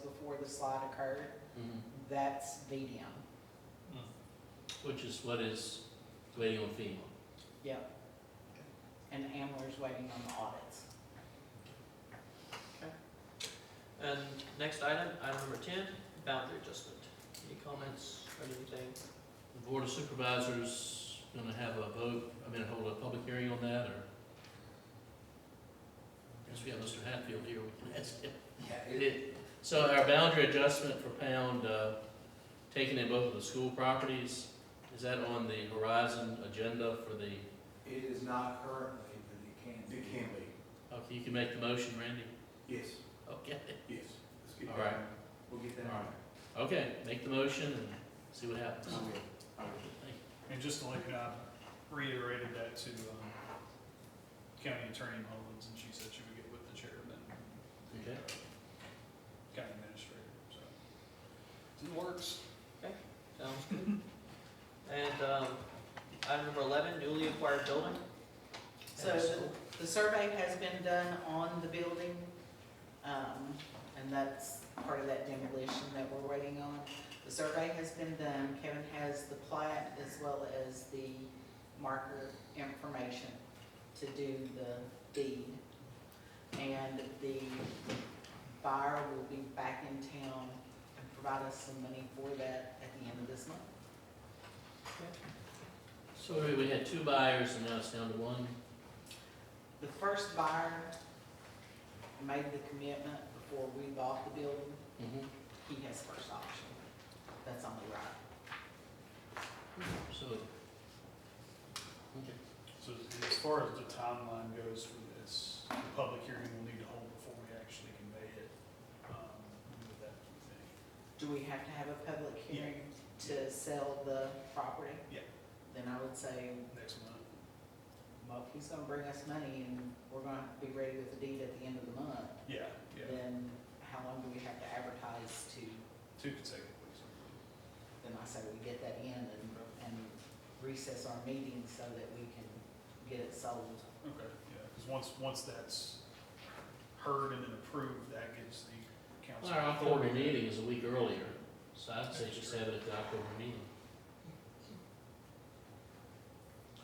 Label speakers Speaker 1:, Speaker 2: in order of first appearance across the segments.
Speaker 1: before the slot occurred,
Speaker 2: Mm-hmm.
Speaker 1: that's VDM.
Speaker 3: Which is what is waiting on FEMA.
Speaker 1: Yep. And Amler's waiting on the audits.
Speaker 2: And next item, item number ten, boundary adjustment. Any comments or anything?
Speaker 3: The Board of Supervisors gonna have a vote, I mean, hold a public hearing on that, or? Since we have Mr. Hatfield here, we can ask him.
Speaker 4: Yeah, it,
Speaker 3: It- So our boundary adjustment for pound, uh, taken in both of the school properties, is that on the horizon agenda for the,
Speaker 4: it is not currently, but it can. be.
Speaker 5: It can be,
Speaker 3: okay, you can make the motion, Randy?
Speaker 5: yes,
Speaker 3: Okay,
Speaker 5: yes. Let's get
Speaker 3: All
Speaker 5: that.
Speaker 3: right.
Speaker 5: We'll get that.
Speaker 3: All right. okay, make the motion and see what happens.
Speaker 5: All right. All right.
Speaker 6: And just to let you know, I reiterated that to um, County Attorney Mullins, and she said she would get with the chairman, the uh,
Speaker 3: Okay.
Speaker 6: county administrator, so. It's in the works.
Speaker 2: Sounds good. And, um, item number eleven, newly acquired building.
Speaker 1: So
Speaker 2: And
Speaker 1: the-
Speaker 2: school.
Speaker 1: the survey has been done on the building, um, and that's part of that demolition that we're waiting on. The survey has been done, Kevin has the plat as well as the marker information to do the deed. And the buyer will be back in town and provide us some money for that at the end of this month.
Speaker 3: So we had two buyers and now it's down to one.
Speaker 1: The first buyer made the commitment before we bought the building,
Speaker 3: Mm-hmm.
Speaker 1: he has first option. That's only right.
Speaker 3: So, okay.
Speaker 6: So as far as the timeline goes for this, the public hearing will need to hold before we actually convey it. um, with that thing.
Speaker 1: Do we have to have a public
Speaker 6: Yeah.
Speaker 1: hearing to sell the property?
Speaker 6: Yeah.
Speaker 1: Then I would say,
Speaker 6: Next month,
Speaker 1: well, if he's gonna bring us money and we're gonna have to be ready with the deed at the end of the month,
Speaker 6: yeah, yeah,
Speaker 1: then how long do we have to advertise to,
Speaker 6: two consecutive weeks.
Speaker 1: then I say we get that in and, and recess our meeting so that we can get it sold.
Speaker 6: Okay, yeah, because once, once that's heard and then approved, that gives the council.
Speaker 3: Our October
Speaker 6: authority.
Speaker 3: meeting is a week earlier, so I'd say just have it at the October meeting.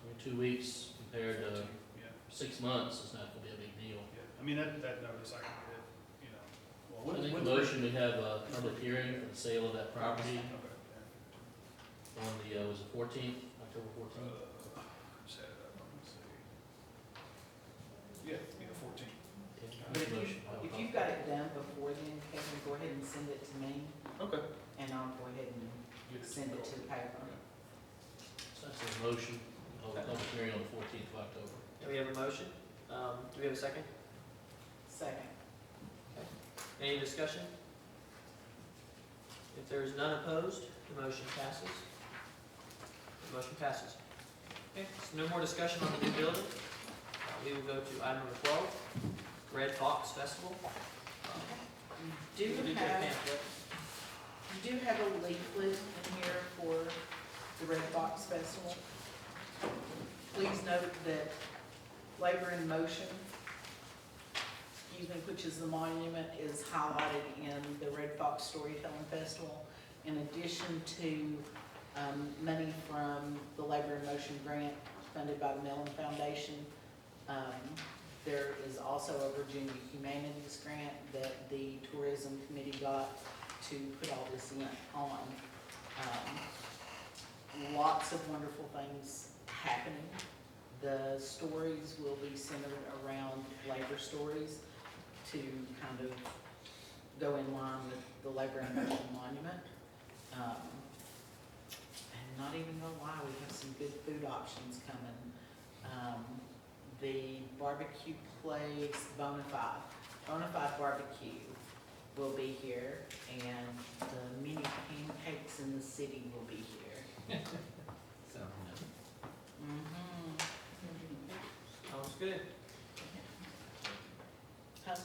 Speaker 3: Only Two weeks compared to
Speaker 6: Yeah,
Speaker 3: six months is not gonna be a big deal.
Speaker 6: yeah, I mean, that, that notice I can get, you know.
Speaker 3: I
Speaker 6: well, when-
Speaker 3: think the
Speaker 6: when-
Speaker 3: motion, we have a public hearing for the sale of that property
Speaker 6: Okay,
Speaker 3: on the, uh, was it fourteenth, October
Speaker 6: yeah.
Speaker 3: fourteenth?
Speaker 6: Uh, just had it up, let me see. Yeah, yeah, fourteen.
Speaker 1: But if you, if you've got it done before then, Kevin, go ahead and send it to me,
Speaker 6: Okay.
Speaker 1: and I'll go ahead and send it to the paper.
Speaker 3: So that's a motion, hold a public hearing on the fourteenth of October.
Speaker 2: Do we have a motion? Um, do we have a second?
Speaker 1: Second.
Speaker 2: Any discussion? If there is none opposed, the motion passes. The motion passes. Okay, so no more discussion on the new building. Uh, We will go to item number twelve, Red Fox Festival.
Speaker 1: Do
Speaker 2: We
Speaker 1: you
Speaker 2: did get a
Speaker 1: have,
Speaker 2: pamphlet.
Speaker 1: you do have a leaflet in here for the Red Fox Festival. Please note that Labor in Motion, excuse me, which is the monument, is highlighted in the Red Fox Storytelling Festival. In addition to, um, money from the Labor in Motion grant funded by the Mellon Foundation, um, There is also a Virginia Humanities Grant that the Tourism Committee got to put all this in on. Um, Lots of wonderful things happening. The stories will be centered around labor stories to kind of go in line with the Labor and National Monument. Um, And not even gonna lie, we have some good food options coming. Um, the barbecue place Bonafide, Bonafide Barbecue will be here, and the mini pancakes in the city will be here. Mhm.
Speaker 2: Sounds good.
Speaker 1: Huh?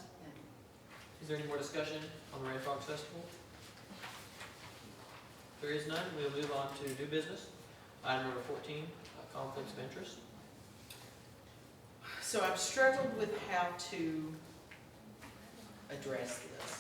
Speaker 2: Is there any more discussion on the Red Fox Festival? If there is none, we'll move on to new business. Item number fourteen, uh, conflicts of interest.
Speaker 1: So I've struggled with how to address this.